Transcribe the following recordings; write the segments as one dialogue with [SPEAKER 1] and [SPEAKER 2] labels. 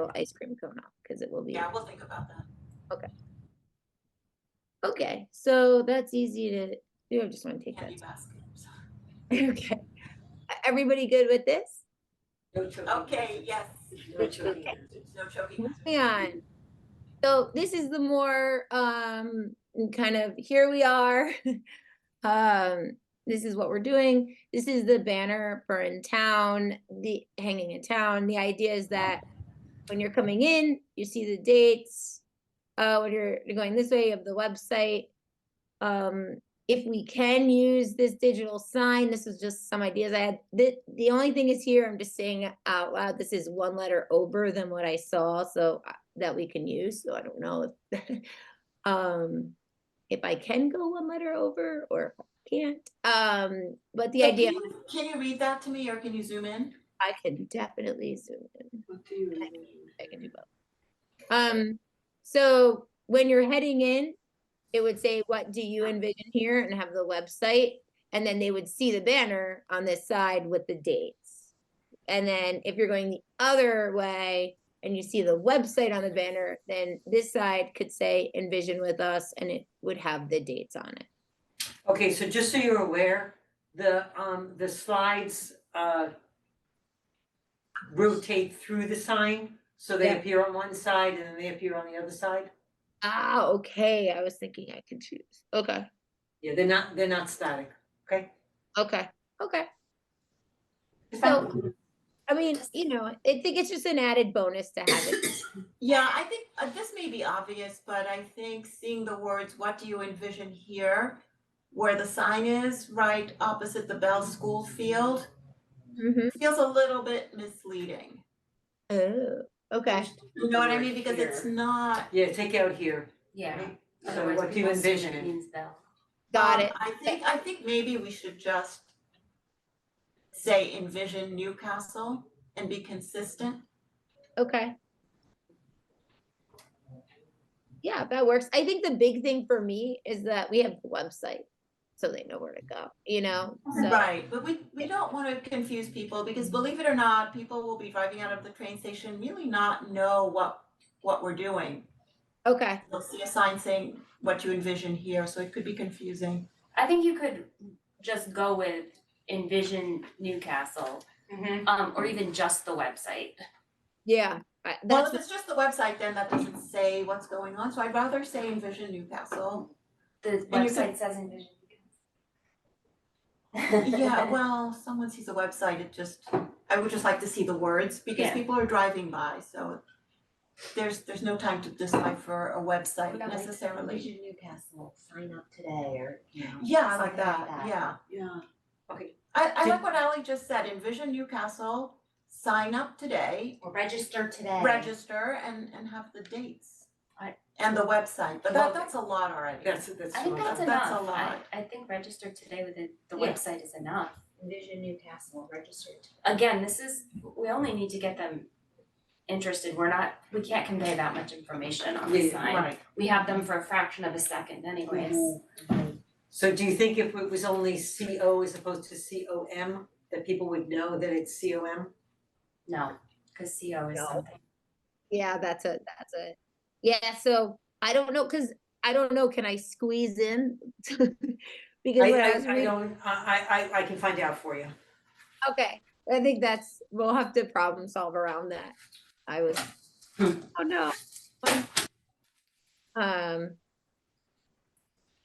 [SPEAKER 1] little ice cream cone off because it will be.
[SPEAKER 2] Yeah, we'll think about that.
[SPEAKER 1] Okay, so that's easy to do. I just want to take that.
[SPEAKER 2] Candy basket.
[SPEAKER 1] Okay. E-, Everybody good with this?
[SPEAKER 2] Okay, yes.
[SPEAKER 3] No choking
[SPEAKER 1] Okay.
[SPEAKER 3] hazards.
[SPEAKER 2] No choking.
[SPEAKER 1] Moving on. So this is the more um kind of here we are. um this is what we're doing. This is the banner for in town, the hanging in town. The idea is that when you're coming in, you see the dates. Uh when you're going this way of the website. Um if we can use this digital sign, this is just some ideas I had. The, the only thing is here, I'm just saying it out loud, this is one letter over than what I saw, so I- that we can use, so I don't know if, um, if I can go one letter over or if I can't. Um, but the
[SPEAKER 2] So
[SPEAKER 1] idea,
[SPEAKER 2] Can you- can you read that to me or can you zoom in?
[SPEAKER 1] I can definitely zoom in.
[SPEAKER 3] What do you
[SPEAKER 1] Okay.
[SPEAKER 3] mean?
[SPEAKER 1] I can do both. Um, so when you're heading in, it would say, what do you envision here? And have the website. And then they would see the banner on this side with the dates. And then if you're going the other way and you see the website on the banner, then this side could say envision with us and it would have the dates on it.
[SPEAKER 3] Okay, so just so you're aware, the um the slides uh rotate through the sign, so they
[SPEAKER 1] Yeah.
[SPEAKER 3] appear on one side and then they appear on the other side.
[SPEAKER 1] Ah, okay. I was thinking I could choose. Okay.
[SPEAKER 3] Yeah, they're not, they're not static, okay?
[SPEAKER 1] Okay. Okay.
[SPEAKER 3] It's
[SPEAKER 1] So-
[SPEAKER 3] fine.
[SPEAKER 1] I mean, you know, I think it's just an added bonus to have it.
[SPEAKER 2] Yeah, I think uh, this may be obvious, but I think seeing the words, what do you envision here? Where the sign is, right opposite the Bell School Field,
[SPEAKER 1] Mhm.
[SPEAKER 2] feels a little bit misleading.
[SPEAKER 1] Oh, okay.
[SPEAKER 2] You know what I mean? Because it's not.
[SPEAKER 3] Yeah, take out here.
[SPEAKER 4] Yeah.
[SPEAKER 3] right? So
[SPEAKER 4] otherwise
[SPEAKER 3] what do you
[SPEAKER 4] people assume it
[SPEAKER 3] envision?
[SPEAKER 4] means bell.
[SPEAKER 1] Got
[SPEAKER 2] Um,
[SPEAKER 1] it.
[SPEAKER 2] I think, I think maybe we should just say envision Newcastle and be consistent.
[SPEAKER 1] Um, Okay. Yeah, that works. I think the big thing for me is that we have the website, so they know where to go, you know? So,
[SPEAKER 2] Right, but we, we don't want to confuse people because believe it or not, people will be driving out of the train station, really not know what, what we're doing.
[SPEAKER 1] okay,
[SPEAKER 2] They'll see a sign saying what you envision here, so it could be confusing.
[SPEAKER 4] I think you could just go with envision Newcastle,
[SPEAKER 3] Mm-hmm.
[SPEAKER 4] um, or even just the website.
[SPEAKER 1] yeah, I-
[SPEAKER 2] Well,
[SPEAKER 1] that's,
[SPEAKER 2] if it's just the website, then that doesn't say what's going on, so I'd rather say envision Newcastle.
[SPEAKER 4] The
[SPEAKER 2] And you could-
[SPEAKER 4] website says envision. Newcastle.
[SPEAKER 2] Yeah, well, someone sees a website, it just, I would just like to see the words because
[SPEAKER 4] Yeah.
[SPEAKER 2] people are driving by, so there's, there's no time to decipher a website necessarily.
[SPEAKER 5] Vision Newcastle, sign up today or, you know.
[SPEAKER 2] Yeah, I like
[SPEAKER 5] something
[SPEAKER 2] that, yeah.
[SPEAKER 3] Yeah. Okay,
[SPEAKER 2] I, I
[SPEAKER 3] Do-
[SPEAKER 2] like what Ally just said, envision Newcastle, sign up today,
[SPEAKER 5] Or register today.
[SPEAKER 2] register and, and have the dates.
[SPEAKER 4] I-
[SPEAKER 2] And the website, but
[SPEAKER 3] Well,
[SPEAKER 2] that, that's a lot already.
[SPEAKER 3] that's that's.
[SPEAKER 4] I think
[SPEAKER 3] fine.
[SPEAKER 4] that's
[SPEAKER 2] a- That's
[SPEAKER 4] enough, I
[SPEAKER 2] lot.
[SPEAKER 4] I think register today with it, the
[SPEAKER 5] Yeah.
[SPEAKER 4] website is enough.
[SPEAKER 5] Vision Newcastle, register today.
[SPEAKER 4] Again, this is, we only need to get them interested, we're not, we can't convey that much information on the
[SPEAKER 3] Yeah,
[SPEAKER 4] sign.
[SPEAKER 2] Right,
[SPEAKER 4] We have them for a fraction of a second anyways.
[SPEAKER 3] So do you think if it was only C O as opposed to C O M, that people would know that it's C O M?
[SPEAKER 4] No, cause CO is
[SPEAKER 1] No.
[SPEAKER 4] something.
[SPEAKER 1] yeah, that's a, that's a, yeah, so I don't know, because I don't know, can I squeeze in? Because
[SPEAKER 3] I
[SPEAKER 1] when I was
[SPEAKER 3] I I
[SPEAKER 1] reading,
[SPEAKER 3] don't, I I I I can find out for you.
[SPEAKER 1] okay, I think that's, we'll have to problem solve around that. I was,
[SPEAKER 3] Hmm.
[SPEAKER 1] oh no. Um,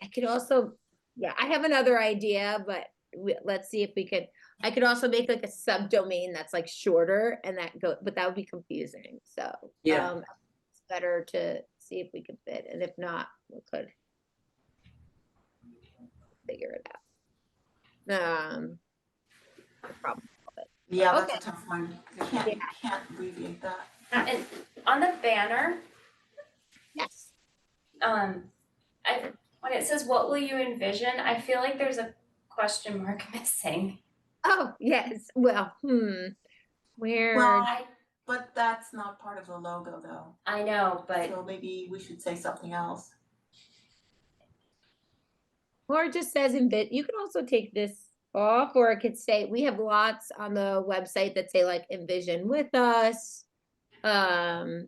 [SPEAKER 1] I could also, yeah, I have another idea, but we, let's see if we could, I could also make like a subdomain that's like shorter and that go, but that would be confusing, so.
[SPEAKER 3] Yeah.
[SPEAKER 1] um, It's better to see if we could fit, and if not, we could figure it out. Um, no problem.
[SPEAKER 2] yeah,
[SPEAKER 1] Okay.
[SPEAKER 2] that's a tough one, can't,
[SPEAKER 1] Yeah.
[SPEAKER 2] can't abbreviate that.
[SPEAKER 4] And on the banner,
[SPEAKER 1] yes,
[SPEAKER 4] um, I, when it says, what will you envision? I feel like there's a question mark missing.
[SPEAKER 1] oh, yes, well, hmm, where,
[SPEAKER 2] Well,
[SPEAKER 4] I,
[SPEAKER 2] but that's not part of the logo though,
[SPEAKER 4] I know, but
[SPEAKER 2] so maybe we should say something else.
[SPEAKER 1] or it just says envi- you can also take this off, or it could say, we have lots on the website that say like envision with us. Um,